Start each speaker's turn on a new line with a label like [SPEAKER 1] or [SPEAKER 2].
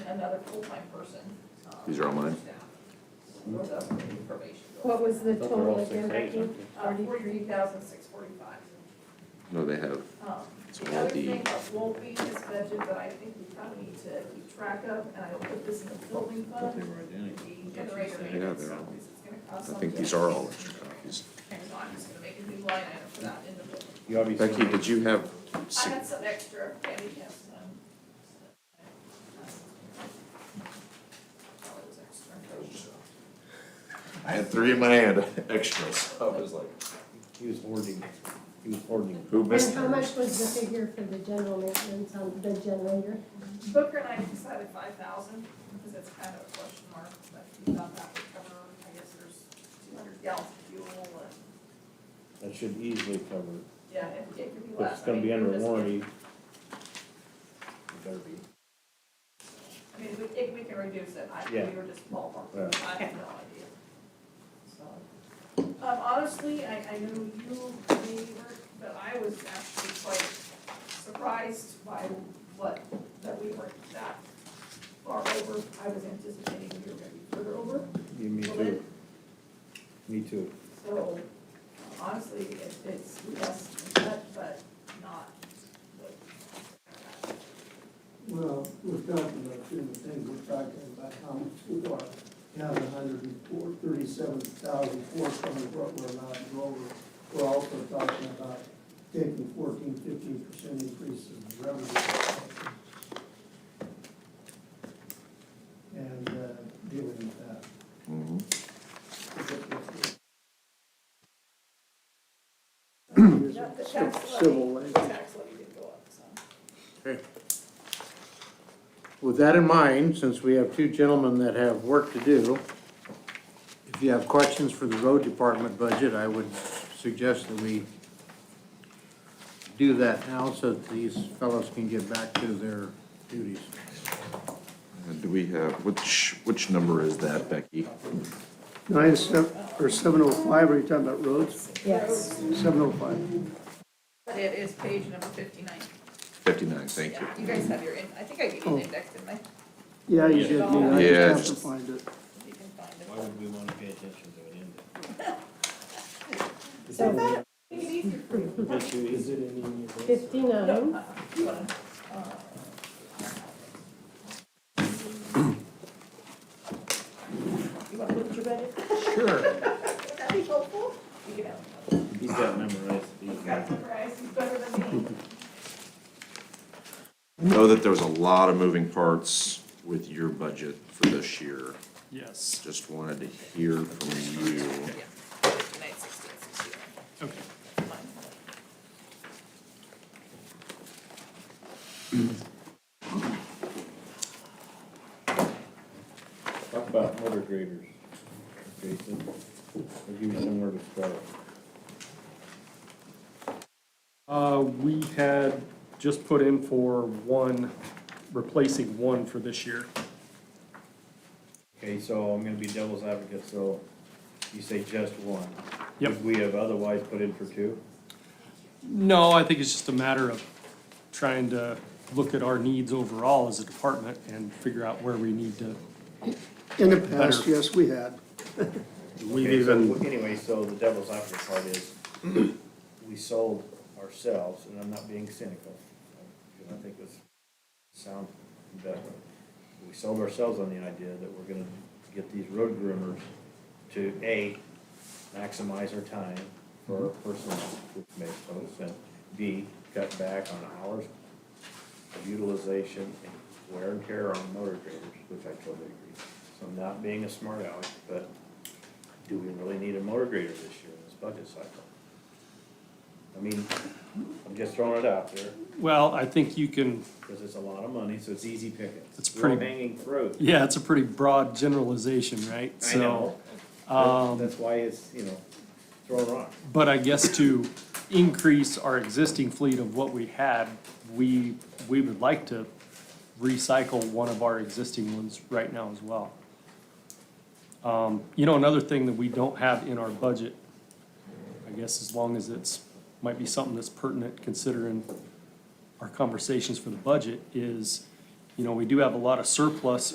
[SPEAKER 1] another full-time person. um,
[SPEAKER 2] These are all mine?
[SPEAKER 1] staff For the probation.
[SPEAKER 3] What was the
[SPEAKER 4] Those are all
[SPEAKER 3] total
[SPEAKER 4] six
[SPEAKER 3] again,
[SPEAKER 4] A's,
[SPEAKER 3] Becky?
[SPEAKER 4] aren't they?
[SPEAKER 1] Uh, forty-three thousand, six forty-five.
[SPEAKER 2] No, they have,
[SPEAKER 1] Um,
[SPEAKER 2] So
[SPEAKER 1] The
[SPEAKER 2] all
[SPEAKER 1] other
[SPEAKER 2] the-
[SPEAKER 1] thing that won't be in this budget, but I think we probably need to keep track of, and I'll put this in the building fund, the generator maintenance,
[SPEAKER 2] they're
[SPEAKER 1] so
[SPEAKER 2] all-
[SPEAKER 1] this is gonna cost
[SPEAKER 2] I
[SPEAKER 1] something.
[SPEAKER 2] think these are all extra copies.
[SPEAKER 1] And so I'm just gonna make a new line item for that in the building.
[SPEAKER 4] You obviously.
[SPEAKER 2] Becky, did you have,
[SPEAKER 1] I
[SPEAKER 2] si-
[SPEAKER 1] had some extra, yeah, we have some. Oh, it was extra.
[SPEAKER 2] I had three in my hand, extras. I was like,
[SPEAKER 4] He was hoarding, he was hoarding.
[SPEAKER 2] who missed
[SPEAKER 3] And how
[SPEAKER 2] them?
[SPEAKER 3] much was the figure for the general maintenance on the generator?
[SPEAKER 1] Booker and I decided five thousand, because it's kind of a question mark, but we thought that would cover, I guess there's two hundred gallons of fuel and,
[SPEAKER 4] That should easily cover it.
[SPEAKER 1] yeah, it it could be
[SPEAKER 4] If
[SPEAKER 1] less.
[SPEAKER 4] it's
[SPEAKER 1] I
[SPEAKER 4] gonna
[SPEAKER 1] mean,
[SPEAKER 4] be under
[SPEAKER 1] we're just-
[SPEAKER 4] warranty. It better be.
[SPEAKER 1] I mean, we, if we can reduce it, I, we
[SPEAKER 4] Yeah.
[SPEAKER 1] were just ballparking,
[SPEAKER 4] Right.
[SPEAKER 1] I have no idea. So, um, honestly, I, I know you, may work, but I was actually quite surprised by what, that we weren't that far over. I was anticipating we were gonna be further over,
[SPEAKER 4] Yeah, me
[SPEAKER 1] Well, then-
[SPEAKER 4] too. Me too.
[SPEAKER 1] so honestly, it, it's less than that, but not what.
[SPEAKER 5] Well, we're talking about two different things, we're talking about how much we are, down a hundred and four, thirty-seven thousand four hundred, what we're allowed to go over. We're also talking about taking fourteen, fifteen percent increase in revenue. And, uh, dealing with that.
[SPEAKER 2] Mhm.
[SPEAKER 6] Mm-hmm.
[SPEAKER 1] Not the tax levy,
[SPEAKER 6] Civil
[SPEAKER 1] the
[SPEAKER 6] link.
[SPEAKER 1] tax levy did go up, so.
[SPEAKER 6] With that in mind, since we have two gentlemen that have work to do, if you have questions for the road department budget, I would suggest that we do that now so that these fellows can get back to their duties.
[SPEAKER 2] Uh, Do we have, which, which number is that, Becky?
[SPEAKER 6] Nine seven, or seven oh five, are you talking about roads?
[SPEAKER 3] Yes.
[SPEAKER 6] Seven oh five.
[SPEAKER 1] But it is page number fifty-nine.
[SPEAKER 2] Fifty-nine, thank you.
[SPEAKER 1] Yeah, you guys have your, in- I think I gave you
[SPEAKER 6] Oh.
[SPEAKER 1] an index, didn't I? If
[SPEAKER 6] Yeah,
[SPEAKER 1] you did, Nina.
[SPEAKER 2] I just Yeah, have to just-
[SPEAKER 6] find it.
[SPEAKER 1] you can find
[SPEAKER 4] Why
[SPEAKER 1] it.
[SPEAKER 4] would we wanna pay attention to an index?
[SPEAKER 3] So
[SPEAKER 1] Make it easier for you.
[SPEAKER 4] Is it in any of those?
[SPEAKER 3] fifty-nine,
[SPEAKER 1] Uh, you wanna, uh, You wanna look at your budget?
[SPEAKER 6] Sure.
[SPEAKER 1] Would that be helpful? You can have another.
[SPEAKER 4] He's got memorized these.
[SPEAKER 1] You've got to memorize, he's better than me.
[SPEAKER 2] I Know that there was a lot of moving parts with your budget for this year.
[SPEAKER 7] Yes,
[SPEAKER 2] Just wanted to hear from you.
[SPEAKER 1] Yeah. Fifty-nine, sixteen, sixty-one.
[SPEAKER 7] okay.
[SPEAKER 1] Mine.
[SPEAKER 4] Talk about motor graders, Jason. I'll give you somewhere to start.
[SPEAKER 7] Uh, we had just put in for one, replacing one for this year.
[SPEAKER 4] Okay, so I'm gonna be devil's advocate, so you say just one.
[SPEAKER 7] Yep.
[SPEAKER 4] Would we have otherwise put in for two?
[SPEAKER 7] No, I think it's just a matter of trying to look at our needs overall as a department and figure out where we need to.
[SPEAKER 6] In the
[SPEAKER 7] past,
[SPEAKER 6] yes, we had.
[SPEAKER 7] We've
[SPEAKER 4] Okay, so
[SPEAKER 7] even,
[SPEAKER 4] Anyway, so the devil's advocate part is, we sold ourselves, and I'm not being cynical, because I think this sounds better. We sold ourselves on the idea that we're gonna get these road groomers to, A, maximize our time for our personnel, which makes total sense. B, cut back on hours of utilization and wear and tear on motor graders, which I totally agree. So I'm not being a smart aleck, but do we really need a motor grader this year in this budget cycle? I mean, I'm just throwing it out there,
[SPEAKER 7] well, I think you can,
[SPEAKER 4] because it's a lot of money, so it's easy picking.
[SPEAKER 7] It's pretty-
[SPEAKER 4] Hanging fruit.
[SPEAKER 7] yeah, it's a pretty broad generalization, right?
[SPEAKER 4] I know.
[SPEAKER 7] So, um,
[SPEAKER 4] That's why it's, you know, throwing rocks.
[SPEAKER 7] But I guess to increase our existing fleet of what we had, we, we would like to recycle one of our existing ones right now as well. Um, you know, another thing that we don't have in our budget, I guess as long as it's, might be something that's pertinent considering our conversations for the budget, is, you know, we do have a lot of surplus